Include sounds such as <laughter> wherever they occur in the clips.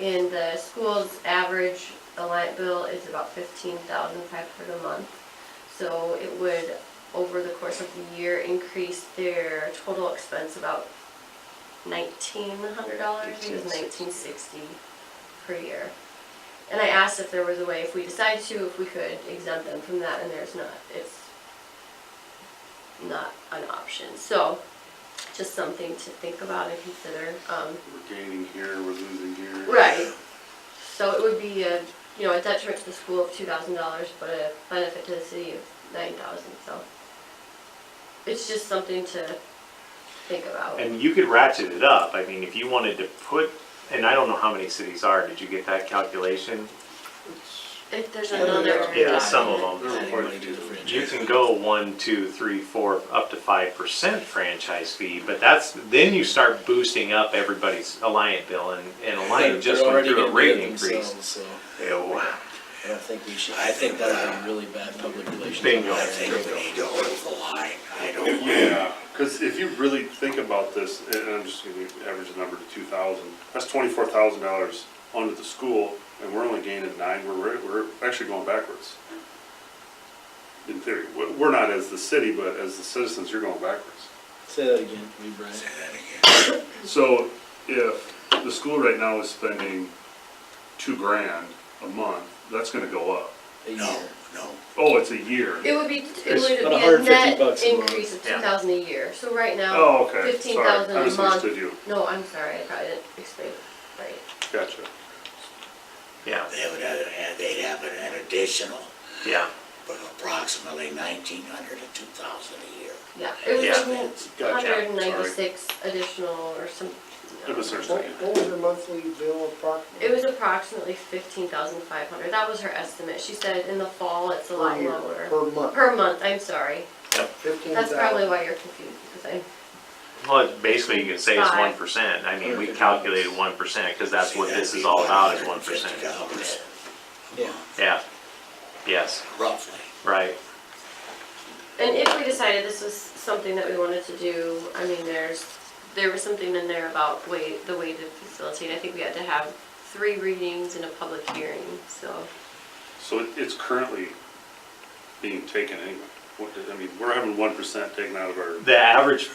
And the school's average Alliant bill is about fifteen thousand five hundred a month. So it would, over the course of the year, increase their total expense about nineteen hundred dollars, it was nineteen sixty per year. And I asked if there was a way, if we decide to, if we could exempt them from that, and there's not, it's not an option, so just something to think about and consider, um, We're gaining here, we're losing here. Right. So it would be a, you know, a detriment to the school of two thousand dollars, but a benefit to the city of nine thousand, so. It's just something to think about. And you could ratchet it up, I mean, if you wanted to put, and I don't know how many cities are, did you get that calculation? If there's Yeah, another. Yeah, some of document. them. They're required to do the You can go one, two, three, four, up to five percent franchise fee, but that's, then you start boosting up everybody's Alliant bill and, and Alliant just went through a rate increase. So Ew. I don't think we should, I think that would be really bad public relations. Bingo. I think we go with the line. I don't. Yeah, because if you really think about this, and I'm just gonna average the number to two thousand, that's twenty-four thousand dollars under the school, and we're only gaining nine, we're, we're actually going backwards. In theory, we're, we're not as the city, but as the citizens, you're going backwards. Say that again, for me, Brian. So if the school right now is spending two grand a month, that's gonna go up. A No, year. no, Oh, it's a year. It would be, it It's would about be a 150 net bucks a month. increase of Yeah. two thousand a year, so right now, Oh, okay, fifteen sorry, thousand I a month. misunderstood you, No, I'm sorry, I probably didn't explain it right. gotcha. Yeah, they would have, had- they'd have an additional, yeah, but approximately nineteen hundred to two thousand a year. Yeah, it was Gotcha, like hundred and sorry. ninety-six additional or some. I misunderstood you. What was her monthly bill It approximately? was approximately fifteen thousand five hundred, that was her estimate, she said in the fall it's a lot lower. Per month, Per month, I'm sorry, fifteen that's probably thousand. why you're confused, because I, well, basically you can say it's one Five. percent, I mean, we calculated one percent, cause that's what this is all about, is one percent. $150, Yeah. Yeah, yes, Roughly. right, and if we decided this was something that we wanted to do, I mean, there's, there was something in there about way, the way to facilitate, I think we had to have three readings and a public hearing, so. So it- it's currently being taken anyway. What, did- I mean, we're having one percent taken out of our, the average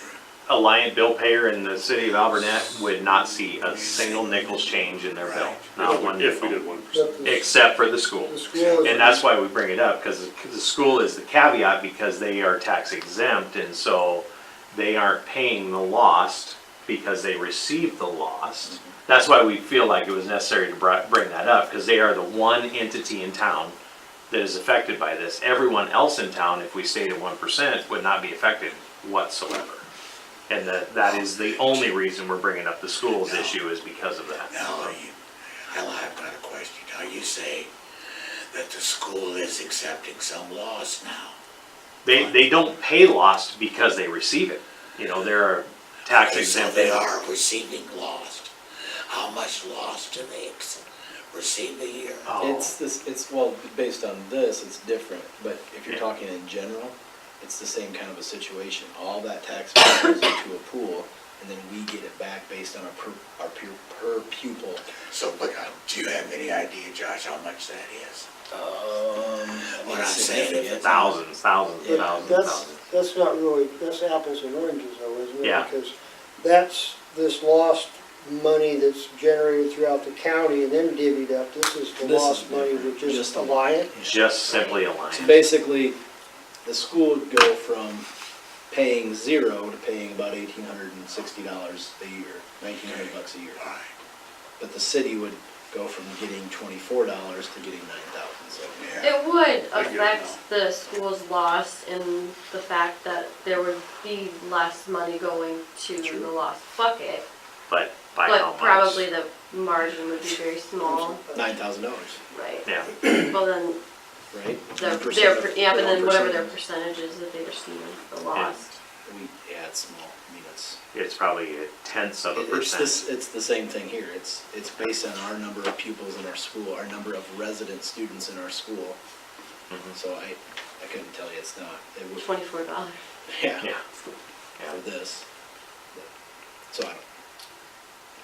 Alliant bill payer in the city of Alburnett would not see a single nickel's change in their bill, not one if we nickel, did one percent. But the- except for the school. The school And is, that's why we bring it up, because the school is the caveat, because they are tax exempt, and so they aren't paying the lost because they received the lost. That's why we feel like it was necessary to bri- bring that up, because they are the one entity in town that is affected by this. Everyone else in town, if we stayed at one percent, would not be affected whatsoever. And that, that is the only reason we're bringing up the schools issue is because of that. Now, are you, I'll have another question. Now, you say that the school is accepting some laws now. They, they don't pay lost because they receive it. You know, they're tax Okay, so exempt. They are receiving lost. How much lost do they ex- receive a year? Oh. It's this, it's, well, based on this, it's different, but if you're Yeah. talking in general, it's the same kind of a situation. All that tax money goes into a pool, and then we get it back based on our per, our pu- per pupil. So, but uh, do you have any idea, Josh, how much that is? Um. What I'm saying is significant. Thousands, thousands, Yeah, thousands, that's, thousands. that's not really, that's apples and oranges though, isn't it? Yeah. Because that's this lost money that's generated throughout the county and then divvied up. This is the This is lost money different. with just Just- Alliant. Just simply a line. So basically, the school would go from paying zero to paying about eighteen hundred and sixty dollars a year, nineteen hundred bucks a year. All right, But the city would go from getting twenty-four dollars to getting nine thousand, so. yeah. It would I get it affect now. the school's loss in the fact that there would be less money going to True. the lost bucket, But by how but probably much? the margin would be very small, Nine thousand dollars, right? Yeah, Well, then, right? their, 1% their, of- per- yeah, but then whatever their 1%. percentage is that they receive, the lost. We, yeah, it's small, I mean, it's, it's probably a tenth of a it's this, percent. it's the same thing here, it's, it's based on our number of pupils in our school, our number of resident students in our school. Mhm. So I, I couldn't tell you, it's not, it would, Twenty-four dollars. <laughs> yeah. Yeah, for this. So I, don't-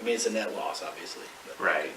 I mean, it's a net loss, obviously. but- right.